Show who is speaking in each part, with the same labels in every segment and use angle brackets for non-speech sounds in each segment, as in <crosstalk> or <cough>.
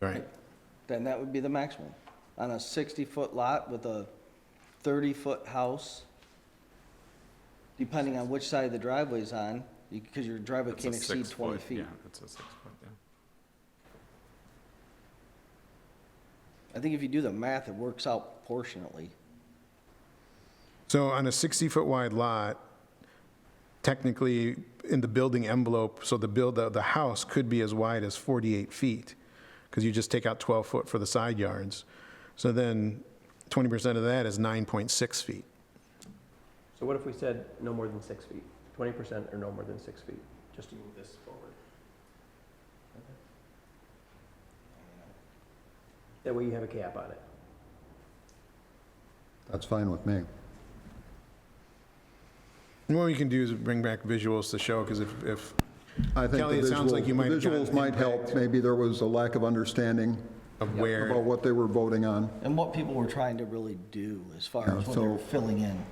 Speaker 1: Right.
Speaker 2: then that would be the maximum. On a 60-foot lot with a 30-foot house, depending on which side the driveway's on, because your driveway
Speaker 3: It's a
Speaker 2: can't exceed
Speaker 3: six
Speaker 2: 20
Speaker 3: foot,
Speaker 2: feet.
Speaker 3: yeah, it's a six foot, yeah.
Speaker 2: I think if you do the math, it works out proportionately.
Speaker 1: So on a 60-foot wide lot, technically, in the building envelope, so the build, the, the house could be as wide as 48 feet, because you just take out 12 foot for the side yards. So then 20% of that is 9.6 feet.
Speaker 4: So what if we said no more than six feet? Twenty percent or no more than six feet, just to move this forward? That way you have a cap on it.
Speaker 5: That's fine with me.
Speaker 1: And what we can do is bring back visuals to show, because if, if,
Speaker 5: I think
Speaker 1: Kelly,
Speaker 5: the
Speaker 1: it sounds like
Speaker 5: visuals-
Speaker 1: you might
Speaker 5: the
Speaker 1: have gotten
Speaker 5: Visuals might help.
Speaker 1: impact.
Speaker 5: Maybe there was a lack of understanding
Speaker 1: of
Speaker 5: about
Speaker 1: where,
Speaker 5: what they were voting on.
Speaker 2: And what people were trying to really do as far as
Speaker 5: Yeah,
Speaker 2: what they were
Speaker 5: so-
Speaker 2: filling in.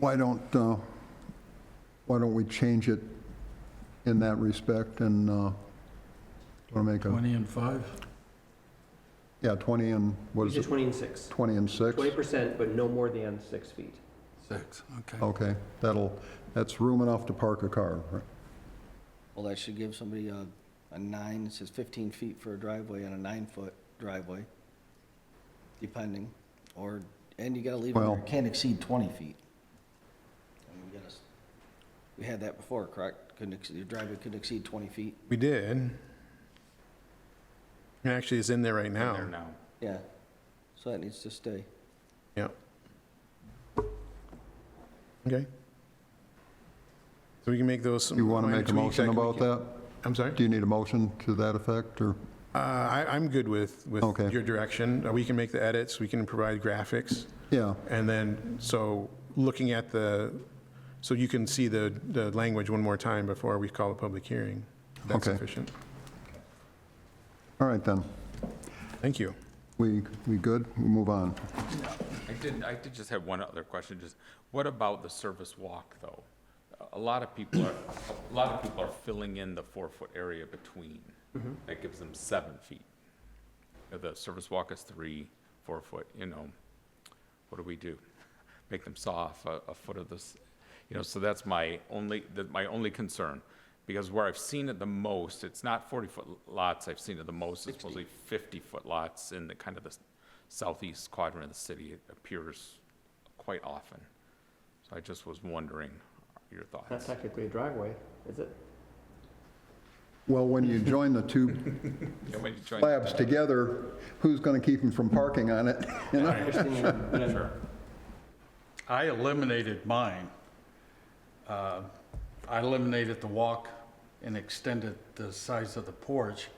Speaker 5: Why don't, uh, why don't we change it in that respect and, uh, wanna make a,
Speaker 6: 20 and 5?
Speaker 5: yeah, 20 and, what
Speaker 4: You
Speaker 5: is
Speaker 4: said
Speaker 5: it,
Speaker 4: twenty and six.
Speaker 5: 20 and 6?
Speaker 4: Twenty percent, but no more than six feet.
Speaker 6: 6, okay.
Speaker 5: Okay, that'll, that's room enough to park a car, right?
Speaker 2: Well, that should give somebody a, a nine, it says 15 feet for a driveway and a nine-foot driveway, depending, or, and you gotta leave it where
Speaker 5: Well-
Speaker 2: it can't exceed 20 feet. I mean, we gotta s- We had that before, correct? Couldn't, ex- your driveway couldn't exceed 20 feet?
Speaker 1: we did. It Actually, it's in there right
Speaker 3: In There
Speaker 1: now.
Speaker 3: now.
Speaker 2: Yeah, so that needs to stay.
Speaker 1: Yeah. Okay. So we can make those.
Speaker 5: You want to
Speaker 1: minor
Speaker 5: make a
Speaker 1: tweaks, I
Speaker 5: motion
Speaker 1: can make
Speaker 5: about
Speaker 1: it-
Speaker 5: that?
Speaker 1: I'm sorry?
Speaker 5: Do you need a motion to that effect, or?
Speaker 1: Uh, I, I'm good with, with
Speaker 5: Okay.
Speaker 1: your direction. Uh, We can make the edits, we can provide graphics,
Speaker 5: Yeah,
Speaker 1: and then, so, looking at the, so you can see the, the language one more time before we call a public hearing. That's
Speaker 5: Okay.
Speaker 1: sufficient.
Speaker 5: all right then.
Speaker 1: Thank you.
Speaker 5: We, we good? We move on.
Speaker 3: I did, I did just have one other question, just, what about the service walk, though? A- A lot of people are, a lot of people are filling in the four-foot area between. That gives them seven feet. Uh, The service walk is three, four-foot, you know, what do we do? Make them saw off a, a foot of this, you know, so that's my only, that, my only concern. Because where I've seen it the most, it's not forty-foot lots, I've seen it the most, it's mostly fifty-foot lots in the kind of the s- southeast quadrant of the city, it appears quite often. So I just was wondering your
Speaker 4: That's
Speaker 3: thoughts.
Speaker 4: technically a driveway, is it?
Speaker 5: Well, when you join the two
Speaker 1: <laughs>
Speaker 3: Yeah, when you join-
Speaker 5: slabs together, who's going to keep them from parking on it? <laughs> You know?
Speaker 3: Sure.
Speaker 6: I eliminated mine. Uh, I eliminated the walk and extended the size of the porch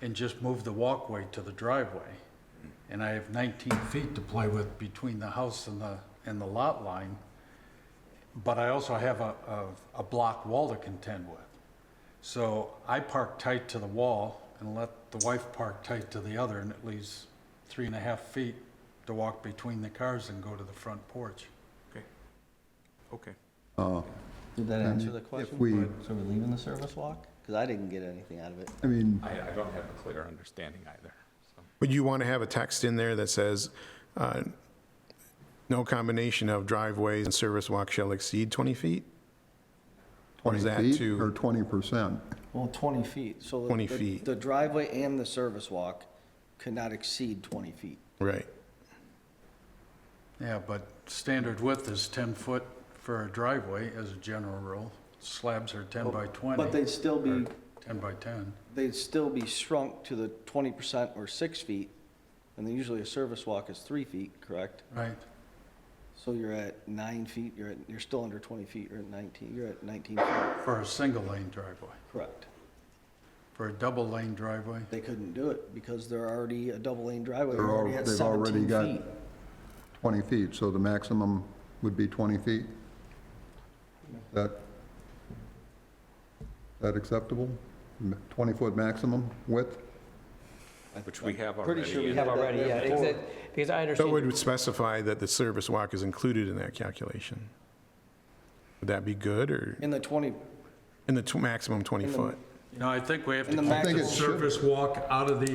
Speaker 6: and just moved the walkway to the driveway. And I have 19 feet to play with between the house and the, and the lot line. But I also have a, a, a block wall to contend with. So I park tight to the wall and let the wife park tight to the other, and it leaves three and a half feet to walk between the cars and go to the front porch.
Speaker 3: Okay. Okay.
Speaker 5: Uh,
Speaker 2: Did that answer the
Speaker 5: if
Speaker 2: question?
Speaker 5: we-
Speaker 2: So we're leaving the service walk? Because I didn't get anything out of it.
Speaker 5: I mean,
Speaker 3: I, I don't have a clear understanding either, so.
Speaker 1: Would you want to have a text in there that says, uh, no combination of driveways and service walk shall exceed 20 feet? Or
Speaker 5: 20
Speaker 1: is that
Speaker 5: feet
Speaker 1: too-
Speaker 5: or 20%?
Speaker 2: Well, 20 feet, so. the-
Speaker 1: 20
Speaker 2: the-
Speaker 1: feet.
Speaker 2: The driveway and the service walk could not exceed 20 feet.
Speaker 1: Right.
Speaker 6: Yeah, but standard width is 10 foot for a driveway as a general rule. Slabs are 10 by 20.
Speaker 2: But they'd still be,
Speaker 6: 10 by 10.
Speaker 2: they'd still be shrunk to the 20% or six feet, and then usually a service walk is three feet, correct?
Speaker 6: Right.
Speaker 2: So you're at nine feet, you're at, you're still under 20 feet, you're at 19, you're at 19 feet,
Speaker 6: For a single lane driveway.
Speaker 2: correct?
Speaker 6: For a double lane driveway,
Speaker 2: They couldn't do it because they're already a double lane driveway,
Speaker 5: They're
Speaker 2: they're
Speaker 5: al-
Speaker 2: already at
Speaker 5: they've already
Speaker 2: 17
Speaker 5: got-
Speaker 2: feet.
Speaker 5: 20 feet, so the maximum would be 20 feet? That, that acceptable? 20-foot maximum width?
Speaker 3: Which we have already.
Speaker 2: Pretty sure we
Speaker 3: in-
Speaker 2: have already, yeah,
Speaker 4: because
Speaker 1: So
Speaker 4: I
Speaker 1: it
Speaker 4: understand,
Speaker 1: would specify that the service walk is included in that calculation. Would that be good, or
Speaker 2: In the 20,
Speaker 1: in the tw- maximum 20
Speaker 2: In the-
Speaker 1: foot?
Speaker 6: you know, I think we have to
Speaker 2: And the
Speaker 6: keep
Speaker 2: maximum-
Speaker 6: the
Speaker 5: I think it should-
Speaker 6: surface walk out of the